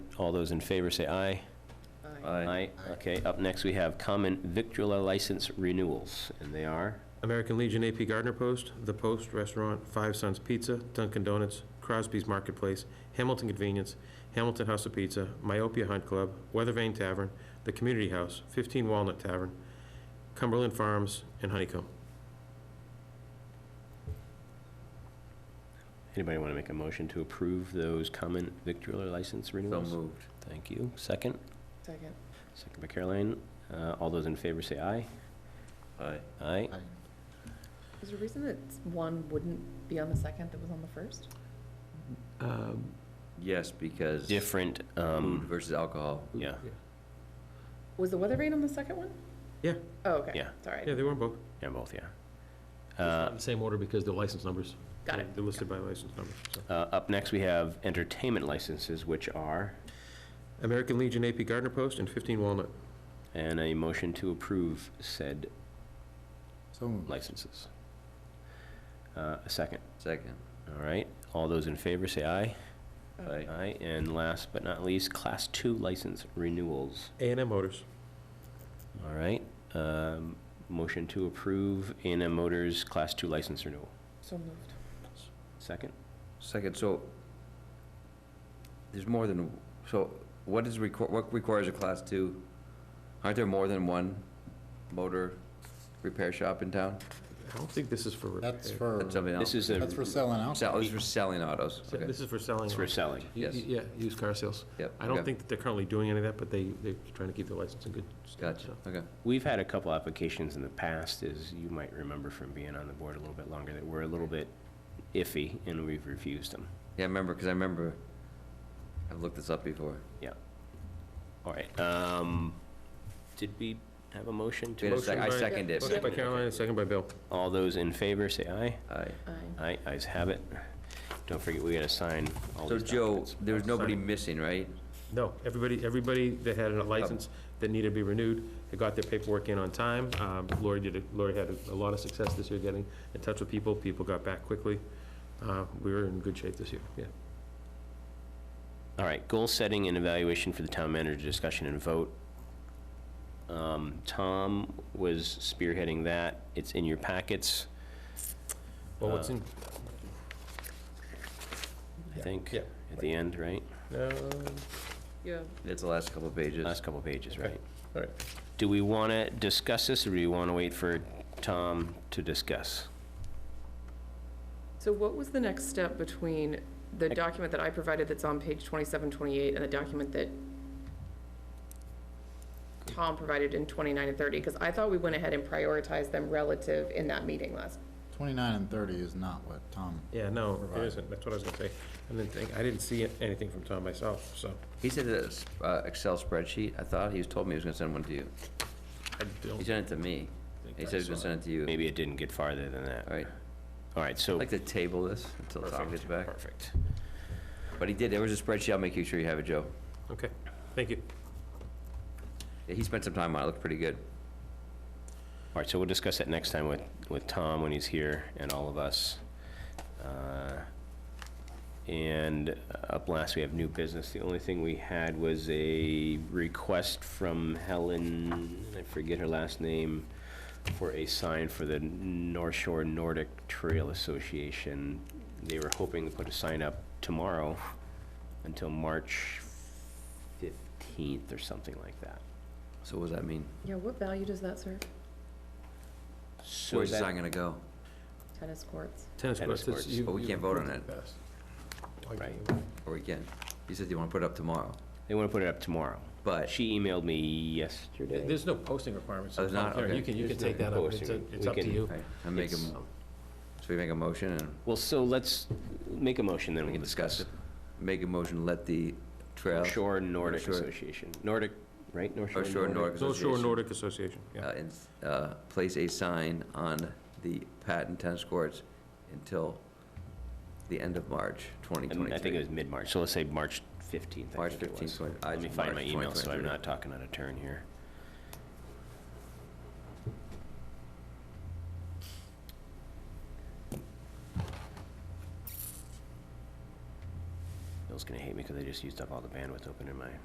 All those in favor say aye. Aye. Okay, up next we have common victular license renewals, and they are? American Legion AP Gardner Post, The Post Restaurant, Five Sons Pizza, Dunkin' Donuts, Crosby's Marketplace, Hamilton Convenience, Hamilton House of Pizza, Myopia Hunt Club, Weather Vane Tavern, The Community House, 15 Walnut Tavern, Cumberland Farms, and Honeycomb. Anybody want to make a motion to approve those common victular license So renewals? moved. Thank you. Second? Second. Second by Caroline. Uh, All those in favor say aye. Aye. Aye. Is there a reason that one wouldn't be on the second that was on the first? Um, Yes, because Different, food um, versus alcohol. yeah. Was the weather vane on the second one? Yeah. Oh, okay. Yeah. Yeah, Sorry. they were on both. Yeah, both, yeah. Uh, Same order because they're license numbers. Got it. They're listed by license number. so. uh, Up next, we have entertainment licenses, which are, American Legion AP Gardner Post and 15 Walnut. and a motion to approve said So moved. licenses. Uh, A second. Second. All right. All those in favor say aye. Aye. Aye. And last but not least, Class 2 license renewals. a and M Motors. All right, um, motion to approve A&M Motors Class 2 license renewal. So moved. Second? Second, so there's more than, so what is, requ- what requires a class two? Aren't there more than one motor repair shop in town? I don't think this is for repair. That's for, That's something This is else. a, that's for selling out. Sell- This is for selling autos. So Okay. This is for selling. it's for selling. Yes. Y- Yeah, used car sales. Yep. I don't okay. think that they're currently doing any of that, but they, they're trying to keep the license in good. state, Gotcha, so. okay. We've had a couple applications in the past, as you might remember from being on the board a little bit longer, that were a little bit iffy, and we've refused them. Yeah, I remember, because I remember, I've looked this up before. All right, um, did we have a motion Wait to? a sec, I Motion by- second it. Motion by Caroline, and second by Bill. All those in favor, say aye. Aye. Aye. Aye, ayes have it. Don't forget, we gotta sign all So these Joe, documents. there's nobody Sorry. missing, right? No, everybody, everybody that had Um, a license that needed to be renewed, they got their paperwork in on time. Um, Lori did, a- Lori had a lot of success this year getting in touch with people. People got back quickly. Uh, We were in good shape this year, yeah. All right, goal setting and evaluation for the town manager discussion and vote. Um, Tom was spearheading that. It's in your packets, Well, what's in, I think, yeah. at the end, right? uh, Yeah. It's the last couple of pages. Last couple pages, right? all right. Do we want to discuss this, or do we want to wait for Tom to discuss? So what was the next step between the Ec- document that I provided that's on page 27, 28, and the document that Tom provided in 29 and 30? Because I thought we went ahead and prioritized them relative in that meeting last. 29 and 30 is not what Tom, Yeah, no, it Provide. isn't. That's what I was gonna say. I didn't think, I didn't see anything from Tom myself, so He said it's uh, Excel spreadsheet. I thought he was told me he was gonna send one to you. I He don't sent it to me. think He I said he was gonna saw it. send it to you. Maybe it didn't get farther than All that. right, All right, I'd so, like to table this until Tom gets perfect, back. perfect. But he did, there was a spreadsheet. I'll make you sure you have it, Joe. Okay, thank you. Yeah, he spent some time on it. It looked pretty good. All right, so we'll discuss that next time with, with Tom when he's here and all of us. Uh, And up last, we have new business. The only thing we had was a request from Helen, I forget her last name, for a sign for the North Shore Nordic Trail Association. They were hoping to put a sign up tomorrow until March 15th or something like that. So what does that mean? Yeah, what value does that serve? So Where's the that- sign gonna go? Tennis courts. Tennis Tennis courts. courts. you- But we you Oh, can't vote on approved it. best. Right. Or we can? He said you wanna put it up tomorrow, They want to put it up tomorrow. but She emailed me yesterday. There's no posting requirements. Oh, there's not? Karen, You Okay. can, you can take that up. It's Posting. it's We up to can- you. all right, I'm making, It's- so we make a motion and Well, so let's make a motion, then we we'll can discuss discuss. it. Make a motion, to let the trail, Shore Nordic Shore. Association, Nordic, right? North North Shore Nordic North Shore Association, Nordic Association, yeah. uh, ins- uh, place a sign on the patent tennis courts until the end of March twenty I mean, twenty-three. I think it was mid-March, so let's say March 15th. I March think it 15th, was. twenty- uh, Let me find March my email, so I'm 2023. not talking out of turn here. Bill's gonna hate me because I didn't just used up all the bandwidth open in my